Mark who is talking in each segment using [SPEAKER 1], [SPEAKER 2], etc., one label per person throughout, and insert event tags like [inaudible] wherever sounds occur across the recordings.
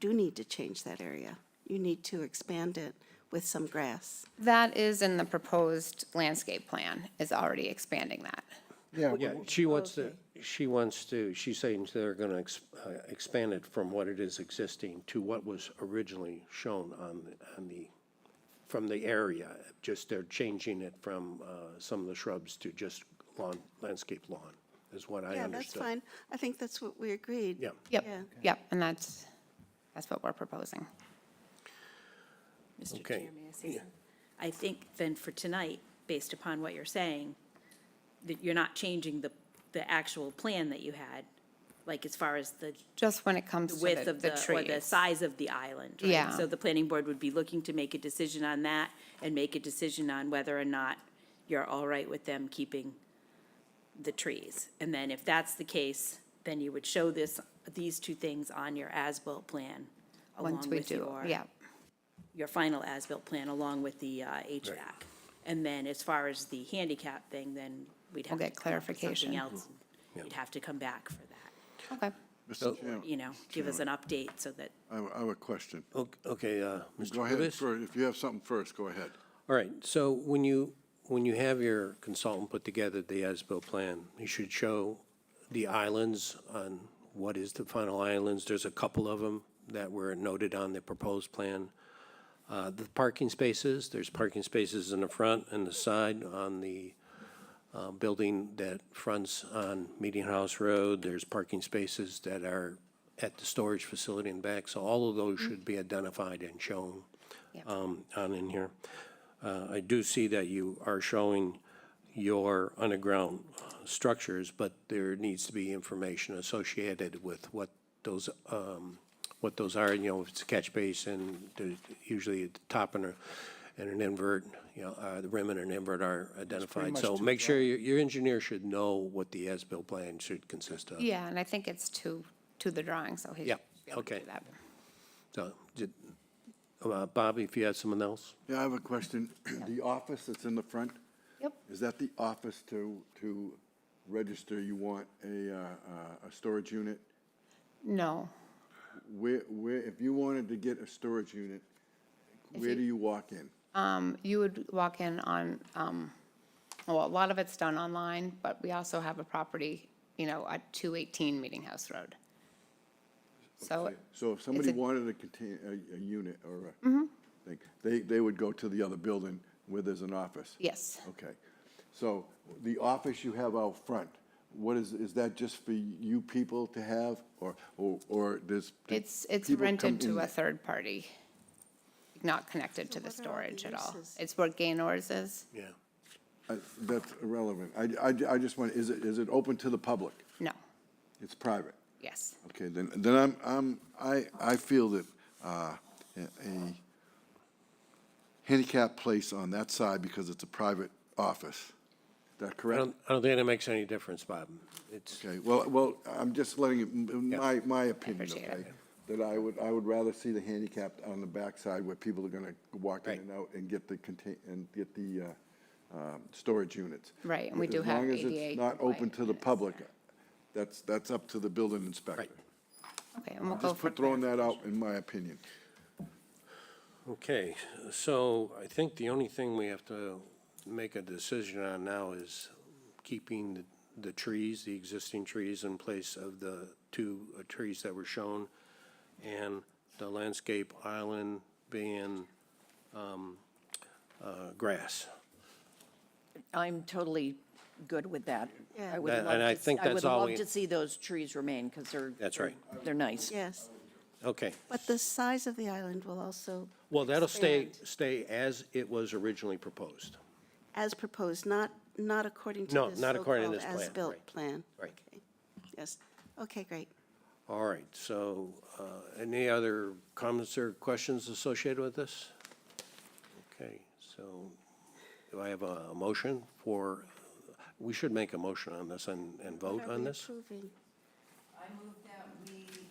[SPEAKER 1] do need to change that area. You need to expand it with some grass.
[SPEAKER 2] That is in the proposed landscape plan, is already expanding that.
[SPEAKER 3] Yeah,
[SPEAKER 4] Yeah, she wants to, she wants to, she's saying they're going to expand it from what it is existing to what was originally shown on, the- on the, from the area. Just they're changing it from uh, some of the shrubs to just lawn, landscape lawn, is what
[SPEAKER 1] Yeah,
[SPEAKER 4] I
[SPEAKER 1] that's
[SPEAKER 4] understood.
[SPEAKER 1] fine. I think that's what we agreed.
[SPEAKER 4] Yeah.
[SPEAKER 2] Yep,
[SPEAKER 1] Yeah.
[SPEAKER 2] yep, and that's, that's what we're proposing.
[SPEAKER 5] Mr.
[SPEAKER 4] Okay.
[SPEAKER 5] Chair, may I say something? I think then for tonight, based upon what you're saying, that you're not changing the, the actual plan that you had, like as far as the
[SPEAKER 2] Just when it comes
[SPEAKER 5] the
[SPEAKER 2] to
[SPEAKER 5] width
[SPEAKER 2] the,
[SPEAKER 5] of
[SPEAKER 2] the
[SPEAKER 5] the, or the
[SPEAKER 2] trees.
[SPEAKER 5] size of the island, right?
[SPEAKER 2] Yeah.
[SPEAKER 5] So the planning board would be looking to make a decision on that and make a decision on whether or not you're all right with them keeping the trees. And then if that's the case, then you would show this, these two things on your as-built plan
[SPEAKER 2] Once
[SPEAKER 5] along
[SPEAKER 2] we
[SPEAKER 5] with
[SPEAKER 2] do,
[SPEAKER 5] your
[SPEAKER 2] yeah,
[SPEAKER 5] your final as-built plan along with the uh, HVAC. And then as far as the handicap thing, then we'd have
[SPEAKER 2] We'll
[SPEAKER 5] to
[SPEAKER 2] get
[SPEAKER 5] come up with
[SPEAKER 2] clarification.
[SPEAKER 5] something else. You'd have to come back for that,
[SPEAKER 2] okay.
[SPEAKER 3] Mr. Chair,
[SPEAKER 5] you know, give us an update so that
[SPEAKER 3] I I have a question.
[SPEAKER 4] O- Okay, uh, Mr.
[SPEAKER 3] Go ahead,
[SPEAKER 4] Rivas?
[SPEAKER 3] fir- if you have something first, go ahead.
[SPEAKER 4] All right, so when you, when you have your consultant put together the as-built plan, you should show the islands on what is the final islands. There's a couple of them that were noted on the proposed plan. Uh, The parking spaces, there's parking spaces in the front and the side on the uh, building that fronts on Meeting House Road. There's parking spaces that are at the storage facility in back. So all of those should be identified and shown um, on in here. Uh, I do see that you are showing your underground uh, structures, but there needs to be information associated with what those, um, what those are, you know, if it's a catch basin, there's usually at the top and a, and an invert, you know, uh, the rim and an invert are identified. So make sure your, your engineer should know what the as-built plan should consist of.
[SPEAKER 2] Yeah, and I think it's to, to the drawing, so he
[SPEAKER 4] Yeah,
[SPEAKER 2] should be able to
[SPEAKER 4] okay.
[SPEAKER 2] do that.
[SPEAKER 4] So, did- uh, Bobby, if you had someone else?
[SPEAKER 3] Yeah, I have a question. [clears throat] The office that's in the front,
[SPEAKER 2] Yep,
[SPEAKER 3] is that the office to, to register you want a, uh, uh, a storage unit?
[SPEAKER 2] no,
[SPEAKER 3] Where, where, if you wanted to get a storage unit, where do you walk in?
[SPEAKER 2] um, you would walk in on, um, well, a lot of it's done online, but we also have a property, you know, at two eighteen Meeting House Road. So,
[SPEAKER 3] So if somebody
[SPEAKER 2] a-
[SPEAKER 3] wanted a contain, a, a unit or a thing, they, they would go to the other building where there's an office?
[SPEAKER 2] yes,
[SPEAKER 3] Okay. So the office you have out front, what is, is that just for you people to have or, or, or does? do
[SPEAKER 2] it's, it's
[SPEAKER 3] people come
[SPEAKER 2] rented
[SPEAKER 3] in
[SPEAKER 2] to a
[SPEAKER 3] there?
[SPEAKER 2] third party, not connected to the
[SPEAKER 1] what are all the
[SPEAKER 2] storage at all.
[SPEAKER 1] uses?
[SPEAKER 2] It's where Gaynor's is,
[SPEAKER 4] Yeah.
[SPEAKER 3] I- Uh, That's irrelevant. I, I, I just want, is it, is it open to the public?
[SPEAKER 2] no,
[SPEAKER 3] It's private.
[SPEAKER 2] yes.
[SPEAKER 3] Okay, then, then I'm, I'm, I, I feel that, uh, a a handicap place on that side because it's a private office. Is that
[SPEAKER 4] I
[SPEAKER 3] correct?
[SPEAKER 4] don't, I don't think that makes any difference, Bob. It's,
[SPEAKER 3] Okay, well, well, I'm just letting, you- m- m- my, my opinion,
[SPEAKER 2] appreciate it.
[SPEAKER 3] okay? That I would, I would rather see the handicapped on the backside where people are gonna walk in
[SPEAKER 4] Right.
[SPEAKER 3] and out and get the contain, and get the, uh, um, storage units.
[SPEAKER 2] Right, and we
[SPEAKER 3] As
[SPEAKER 2] do have
[SPEAKER 3] long as it's
[SPEAKER 2] ADA
[SPEAKER 3] Not open
[SPEAKER 2] compliant
[SPEAKER 3] to the
[SPEAKER 2] units.
[SPEAKER 3] public, that's, that's up to the building inspector.
[SPEAKER 2] Okay, and we'll go
[SPEAKER 3] Just
[SPEAKER 2] for
[SPEAKER 3] put- throwing that out in my opinion.
[SPEAKER 4] okay, so I think the only thing we have to make a decision on now is keeping the, the trees, the existing trees in place of the two uh, trees that were shown, and the landscape island being, um, uh, grass.
[SPEAKER 6] I'm totally good with that.
[SPEAKER 1] Yeah.
[SPEAKER 6] I would
[SPEAKER 4] That-
[SPEAKER 6] love
[SPEAKER 4] and I
[SPEAKER 6] to s-
[SPEAKER 4] think
[SPEAKER 6] I
[SPEAKER 4] that's
[SPEAKER 6] would
[SPEAKER 4] all
[SPEAKER 6] love
[SPEAKER 4] we-
[SPEAKER 6] to see those trees remain because they're.
[SPEAKER 4] That's
[SPEAKER 6] they're-
[SPEAKER 4] right.
[SPEAKER 6] They're nice.
[SPEAKER 1] Yes,
[SPEAKER 4] Okay,
[SPEAKER 1] but the size of the island will also,
[SPEAKER 4] well, that'll stay,
[SPEAKER 1] Expand.
[SPEAKER 4] stay as it was originally proposed.
[SPEAKER 1] as proposed, not, not according to
[SPEAKER 4] No,
[SPEAKER 1] this
[SPEAKER 4] not according to
[SPEAKER 1] so-called
[SPEAKER 4] this plan,
[SPEAKER 1] as-built
[SPEAKER 4] right.
[SPEAKER 1] plan.
[SPEAKER 4] Right.
[SPEAKER 1] Okay. Yes, okay, great.
[SPEAKER 4] All right, so uh, any other comments or questions associated with this? Okay, so do I have a motion for, we should make a motion on this and, and vote
[SPEAKER 1] Are
[SPEAKER 4] on
[SPEAKER 1] we
[SPEAKER 4] this?
[SPEAKER 1] approving?
[SPEAKER 7] I move that we,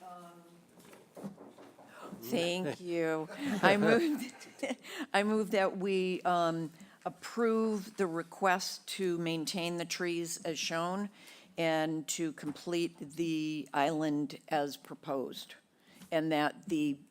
[SPEAKER 7] um,
[SPEAKER 6] [gasps]
[SPEAKER 4] [laughs]
[SPEAKER 6] Thank you. I moved, [laughs] I moved that we um, approve the request to maintain the trees as shown and to complete the island as proposed and that the